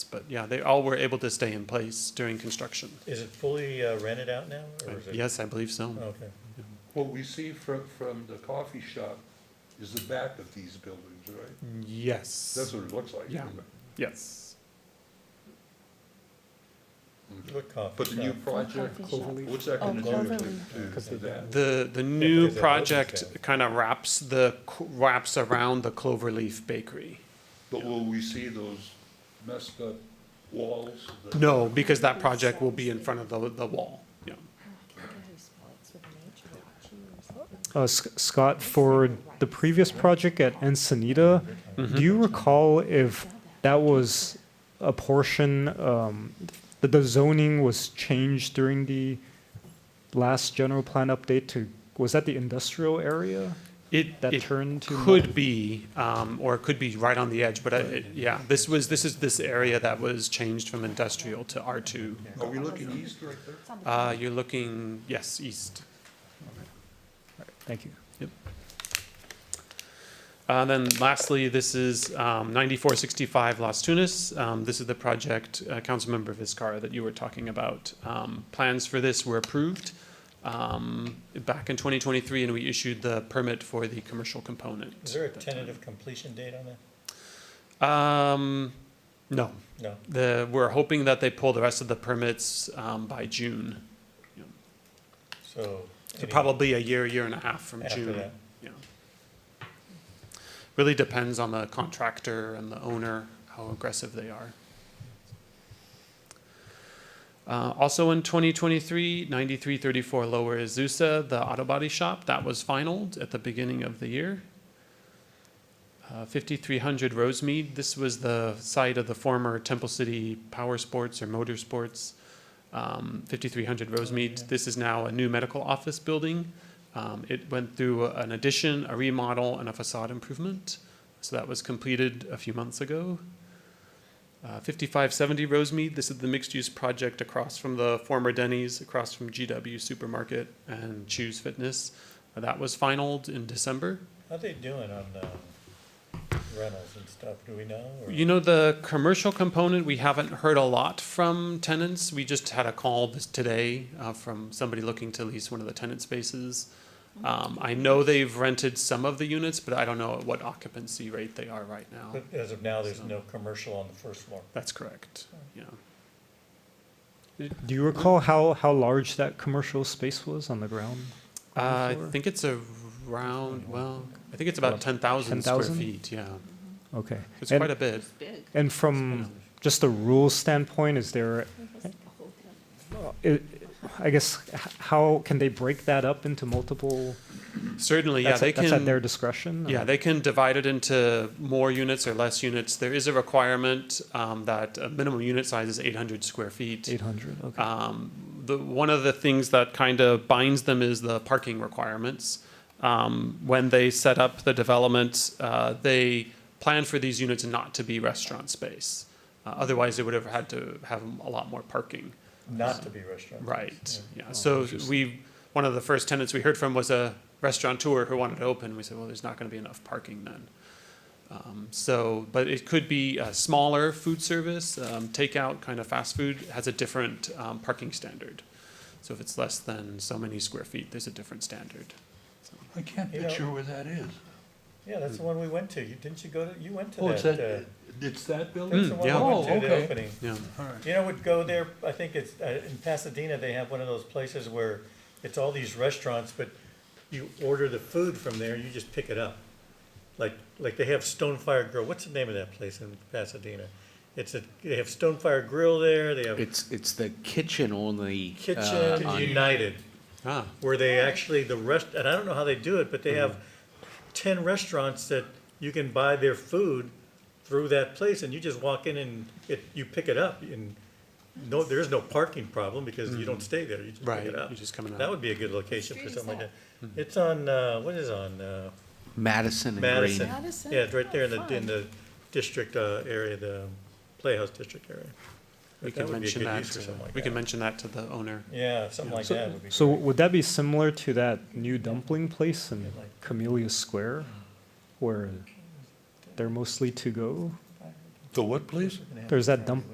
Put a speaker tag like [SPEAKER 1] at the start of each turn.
[SPEAKER 1] But yeah, they all were able to stay in place during construction.
[SPEAKER 2] Is it fully uh, rented out now, or is it? Oh.
[SPEAKER 1] Yes, I believe so.
[SPEAKER 2] Okay.
[SPEAKER 3] What we see from, from the coffee shop is the back of these buildings, right? That's
[SPEAKER 1] Yes,
[SPEAKER 3] what it looks like.
[SPEAKER 1] Yeah. yes.
[SPEAKER 2] What Uh, coffee
[SPEAKER 3] But the new
[SPEAKER 2] shop?
[SPEAKER 3] project,
[SPEAKER 4] Coffee shop.
[SPEAKER 3] what's that gonna
[SPEAKER 4] Oh,
[SPEAKER 3] do
[SPEAKER 2] Cloverleaf.
[SPEAKER 3] to- to, to that?
[SPEAKER 1] The, the
[SPEAKER 2] Yeah,
[SPEAKER 1] new
[SPEAKER 2] because that
[SPEAKER 1] project
[SPEAKER 2] wasn't
[SPEAKER 1] kind of wraps the, wraps around the Cloverleaf Bakery.
[SPEAKER 3] But will we see those messed up walls? that-
[SPEAKER 1] No, because that project will be in front of the, the wall, yeah.
[SPEAKER 5] Uh, S- Scott, for the previous project at Encinita,
[SPEAKER 1] Mm-hmm.
[SPEAKER 5] do you recall if that was a portion, um, that the zoning was changed during the last general plan update to, was that the industrial area?
[SPEAKER 1] It,
[SPEAKER 5] That
[SPEAKER 1] it
[SPEAKER 5] turned to
[SPEAKER 1] could be, um, or it could be right on the edge, but I- it, yeah, this was, this is this area that was changed from industrial to R two.
[SPEAKER 3] Are we looking east right there?
[SPEAKER 1] Uh, you're looking, yes, east.
[SPEAKER 5] Thank you.
[SPEAKER 1] Uh, then lastly, this is um, 9465 Las Tunas. Um, this is the project, uh, Councilmember Vizcarra, that you were talking about. Um, plans for this were approved um, back in 2023, and we issued the permit for the commercial component.
[SPEAKER 2] Is there a tentative completion date on that?
[SPEAKER 1] Um, no,
[SPEAKER 2] No.
[SPEAKER 1] the, we're hoping that they pull the rest of the permits um, by June.
[SPEAKER 2] So.
[SPEAKER 1] So
[SPEAKER 2] any-
[SPEAKER 1] probably a year, year and a half from
[SPEAKER 2] After
[SPEAKER 1] June.
[SPEAKER 2] that.
[SPEAKER 1] Yeah. Really depends on the contractor and the owner, how aggressive they are. Uh, also in 2023, 9334 Lower Azusa, the auto body shop, that was finalized at the beginning of the year. Uh, 5300 Rosemead, this was the site of the former Temple City Power Sports or Motorsports. Um, 5300 Rosemead, this is now a new medical office building. Um, it went through an addition, a remodel, and a facade improvement. So that was completed a few months ago. Uh, 5570 Rosemead, this is the mixed use project across from the former Denny's, across from GW Supermarket and Choose Fitness. Uh, that was finalized in December.
[SPEAKER 2] How they doing on um, rentals and stuff? Do we know? or-
[SPEAKER 1] You know, the commercial component, we haven't heard a lot from tenants. We just had a call this today uh, from somebody looking to lease one of the tenant spaces. Um, I know they've rented some of the units, but I don't know at what occupancy rate they are right now.
[SPEAKER 2] But As of now, there's no commercial on the first floor.
[SPEAKER 1] That's correct. Yeah.
[SPEAKER 5] Do you recall how, how large that commercial space was on the ground?
[SPEAKER 1] Uh, I
[SPEAKER 5] Before?
[SPEAKER 1] think it's around, well, I think it's about 10,000 square
[SPEAKER 5] 10,000?
[SPEAKER 1] feet. Yeah.
[SPEAKER 5] Okay.
[SPEAKER 1] It's
[SPEAKER 5] And- Hmm.
[SPEAKER 1] quite a bit.
[SPEAKER 4] Big.
[SPEAKER 5] And from just a rule standpoint, is there, i- I guess, h- how can they break that up into multiple?
[SPEAKER 1] Certainly, yeah,
[SPEAKER 5] that's
[SPEAKER 1] they
[SPEAKER 5] at- That's at
[SPEAKER 1] can.
[SPEAKER 5] their discretion?
[SPEAKER 1] Yeah, they can divide it into more units or less units. There is a requirement um, that a minimum unit size is 800 square feet.
[SPEAKER 5] Eight hundred, okay.
[SPEAKER 1] Um, the, one of the things that kind of binds them is the parking requirements. Um, when they set up the development, uh, they plan for these units not to be restaurant space. Uh, otherwise, they would have had to have a lot more parking.
[SPEAKER 2] Not to be restaurant.
[SPEAKER 1] Right, yeah, Oh, so we, one of the first tenants we heard from was a restaurateur who wanted to open, we said, well, there's not gonna be enough parking then. Um, so, but it could be a smaller food service, um, takeout, kind of fast food, has a different, um, parking standard. So if it's less than so many square feet, there's a different standard.
[SPEAKER 3] I can't
[SPEAKER 2] You know-
[SPEAKER 3] picture where that is.
[SPEAKER 2] Yeah, that's the one we went to. You, didn't you go to, you went to that?
[SPEAKER 3] Oh, it's
[SPEAKER 2] uh,
[SPEAKER 3] that, it's that building?
[SPEAKER 2] That's the one
[SPEAKER 1] Hmm, yeah.
[SPEAKER 2] we went to, the
[SPEAKER 3] Oh, okay.
[SPEAKER 2] opening.
[SPEAKER 1] Yeah,
[SPEAKER 3] All right.
[SPEAKER 2] You know, would go there, I think it's, uh, in Pasadena, they have one of those places where it's all these restaurants, but you order the food from there, you just pick it up. Like, like they have Stonefire Grill, what's the name of that place in Pasadena? It's a, they have Stonefire Grill there, they have
[SPEAKER 6] It's, it's the kitchen only. uh,
[SPEAKER 2] Kitchen United,
[SPEAKER 1] ah,
[SPEAKER 2] where they actually, the rest, and I don't know how they do it, but they have ten restaurants that you can buy their food through that place, and you just walk in and it, you pick it up, and no, there is no parking problem, because you don't stay there, you just pick
[SPEAKER 1] right,
[SPEAKER 2] it up.
[SPEAKER 1] you're just coming
[SPEAKER 2] That
[SPEAKER 1] out.
[SPEAKER 2] would be a good location for
[SPEAKER 4] street is
[SPEAKER 2] something like that. It's on, uh, what is on, uh,
[SPEAKER 6] Madison and
[SPEAKER 2] Madison?
[SPEAKER 6] Green.
[SPEAKER 4] Madison?
[SPEAKER 2] Yeah, it's right there in the, in
[SPEAKER 4] Oh,
[SPEAKER 2] the district, uh, area, the Playhouse District area.
[SPEAKER 1] We
[SPEAKER 2] But
[SPEAKER 1] can
[SPEAKER 2] would be a
[SPEAKER 1] mention
[SPEAKER 2] good
[SPEAKER 1] that,
[SPEAKER 2] use for
[SPEAKER 1] to-
[SPEAKER 2] something like
[SPEAKER 1] we can
[SPEAKER 2] that.
[SPEAKER 1] mention that to the owner.
[SPEAKER 2] Yeah, something like that would be.
[SPEAKER 5] So
[SPEAKER 2] great.
[SPEAKER 5] would that be similar to that new dumpling place in Camellia Square? Where they're mostly to-go?
[SPEAKER 3] The what, please?
[SPEAKER 5] There's that dump,